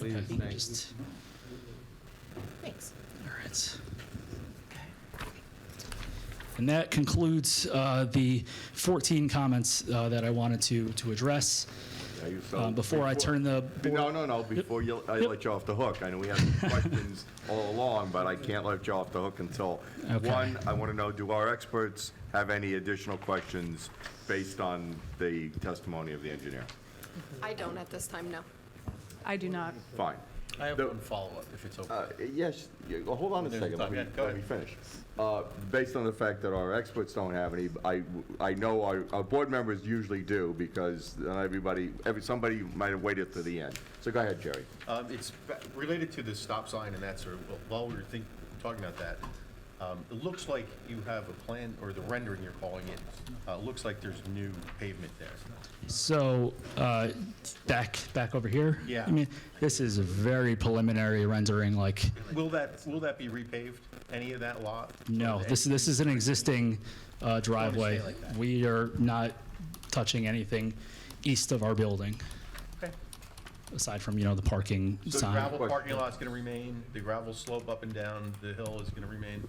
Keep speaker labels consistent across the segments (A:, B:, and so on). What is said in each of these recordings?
A: Please,
B: Okay.
A: thank you.
B: Just-
C: Thanks.
B: All right. And that concludes uh, the 14 comments uh, that I wanted to, to address.
D: Are you so-
B: Um, Before I turn the,
D: No, no, no, before you, I let you off the hook. I know we had questions all along, but I can't let you off the hook until,
B: Okay.
D: one, I want to know, do our experts have any additional questions based on the testimony of the engineer?
C: I don't at this time, no.
E: I do not.
D: Fine.
A: I have
D: The-
A: one follow-up, if it's okay.
D: Uh, Yes, you- well, hold on a
A: There's
D: second, let
A: time.
D: me,
A: Yeah, go
D: let me finish. Uh, Based on the fact that our experts don't have any, I, I know our, our board members usually do, because then everybody, every, somebody might have waited to the end. So go ahead, Jerry.
F: Um, It's ba- related to the stop sign and that sort of, while we were think, talking about that, um, it looks like you have a plan, or the rendering you're calling it, uh, looks like there's new pavement there.
B: so, uh, back, back over here.
F: Yeah.
B: I mean, this is a very preliminary rendering, like,
F: Will that, will that be repaved, any of that lot?
B: no, this, this is an existing uh, driveway.
F: like that.
B: We are not touching anything east of our building,
F: Okay.
B: aside from, you know, the parking
F: So the
B: sign.
F: gravel parking lot's gonna remain, the gravel slope up and down the hill is gonna remain?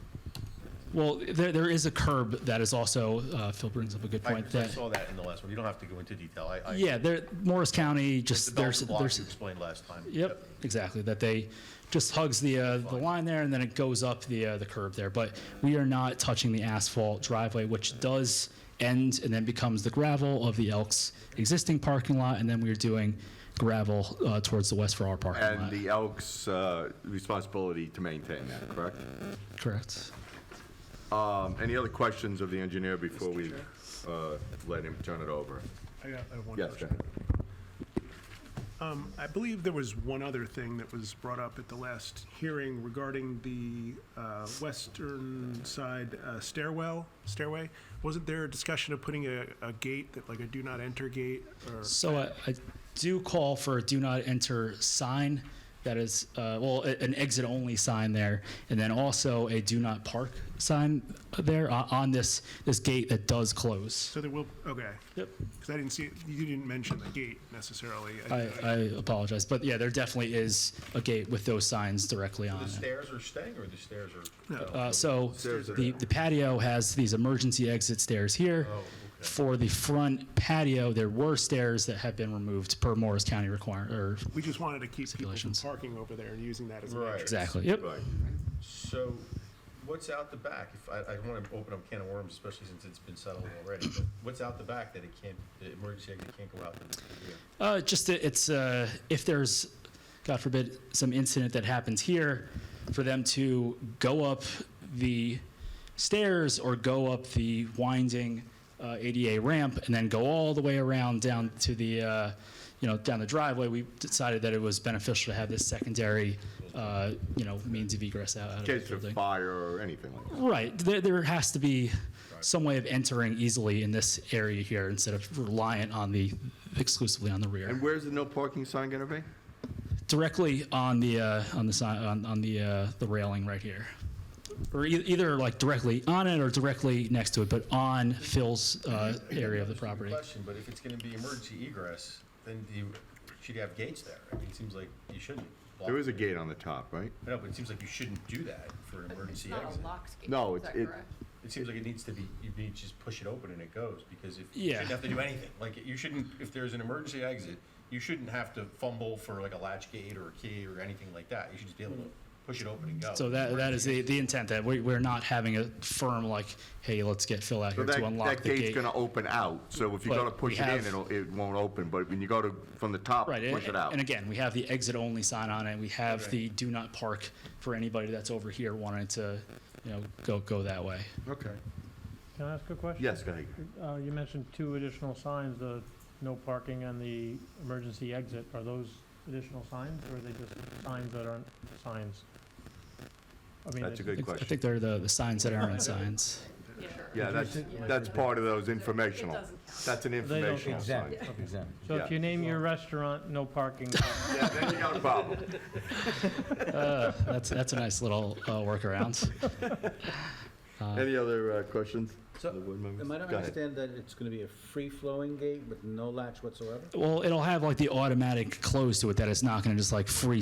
B: Well, there, there is a curb that is also, uh, Phil brings up a good
F: I-
B: point.
F: I
B: that-
F: saw that in the last one, you don't have to go into detail, I, I.
B: Yeah, there, Morris County,
F: The
B: just,
F: Belgian
B: there's,
F: block you
B: there's,
F: explained last time.
B: yep, exactly, that they just hugs the, uh, the line there, and then it goes up the, uh, the curb there. But we are not touching the asphalt driveway, which does end and then becomes the gravel of the Elks' existing parking lot, and then we are doing gravel, uh, towards the west for our parking
D: And
B: lot.
D: the Elks' uh, responsibility to maintain that, correct?
B: Correct.
D: Um, Any other questions of the engineer before we uh, let him turn it over?
G: I got I have one
D: Yes,
G: question. Um,
D: Jack.
G: I believe there was one other thing that was brought up at the last hearing regarding the uh, western side uh, stairwell, stairway. Wasn't there a discussion of putting a, a gate that, like a do not enter gate or?
B: So I, I do call for a do not enter sign that is, uh, well, a- an exit only sign there, and then also a do not park sign there on, on this, this gate that does close.
G: So there will, okay.
B: Yep.
G: Because I didn't see, it- you didn't mention the gate necessarily.
B: I, I apologize, but yeah, there definitely is a gate with those signs directly on
F: The
B: it.
F: stairs are staying, or the stairs are?
B: Uh, so
D: Stairs that
B: the,
D: are-
B: the patio has these emergency exit stairs here.
D: Oh,
B: For the front patio, there were stairs that have been removed per Morris County require, or,
G: We just wanted to keep people from
B: Stipulations.
G: parking over there and using that as an
F: Right.
G: entrance.
B: exactly, yep.
D: Right.
F: So what's out the back? If, I, I don't want to open up a can of worms, especially since it's been settled already, but what's out the back that it can't, the emergency exit can't go out the the rear?
B: Uh, just that it's uh, if there's, God forbid, some incident that happens here, for them to go up the stairs or go up the winding uh, ADA ramp and then go all the way around down to the, uh, you know, down the driveway. We decided that it was beneficial to have this secondary, uh, you know, means of egress out, out of
D: In
B: the
D: case of
B: building.
D: fire or anything like that.
B: Right. There, there has to be some way of entering easily in this area here instead of reliant on the exclusively on the rear.
D: And where's the no parking sign going to be?
B: directly on the uh, on the si- on, on the uh, the railing right here, or e- either like directly on it or directly next to it, but on Phil's uh, area of the property.
F: Question, but if it's going to be emergency egress, then you should have gates there. I mean, it seems like you shouldn't. block-
D: There is a gate on the top, right?
F: No, but it seems like you shouldn't do that for an
C: It's
F: emergency
C: not
F: exit.
C: a locked gate.
D: No,
C: is
D: it's-
C: that
D: it-
C: correct?
F: It seems like it needs to be, you need to just push it open and it goes, because if, you
B: Yeah.
F: shouldn't have to do anything. Like, you shouldn't, if there's an emergency exit, you shouldn't have to fumble for like a latch gate or a key or anything like that. You should just be able to push it open and go.
B: So that that is the, the intent that we, we're not having a firm like, hey, let's get Phil out
D: So
B: here
D: that,
B: to unlock
D: that
B: the
D: gate's
B: gate.
D: going to open out, so if you go
B: But
D: to push
B: we
D: it in,
B: have-
D: it'll, it won't open, but when you go to, from the top,
B: Right,
D: push it
B: and,
D: out.
B: and again, we have the exit only sign on it. We have the
F: Okay.
B: do not park for anybody that's over here wanting to, you know, go go that way.
D: Okay.
H: Can I ask a question?
D: Yes, go ahead.
H: Uh, you mentioned two additional signs, the no parking and the emergency exit. Are those additional signs or are they just signs that aren't signs? I mean,
D: That's a
H: it-
D: good
B: I
D: question.
B: think they're the, the signs that aren't signs.
D: Yeah, that's, that's part of those informational.
C: doesn't count.
D: That's an
H: don't
D: informational
H: count.
D: sign.
H: So if
D: yeah.
H: you name your restaurant, no parking,
D: Yeah, then you got a problem.
B: uh, That's, that's a nice little uh, workaround.
D: Any other uh, questions?
A: So,
D: The board members?
A: am I
D: Go
A: to
D: ahead.
A: understand that it's gonna be a free-flowing gate with no latch whatsoever?
B: Well, it'll have like the automatic close to it that it's not going to just like free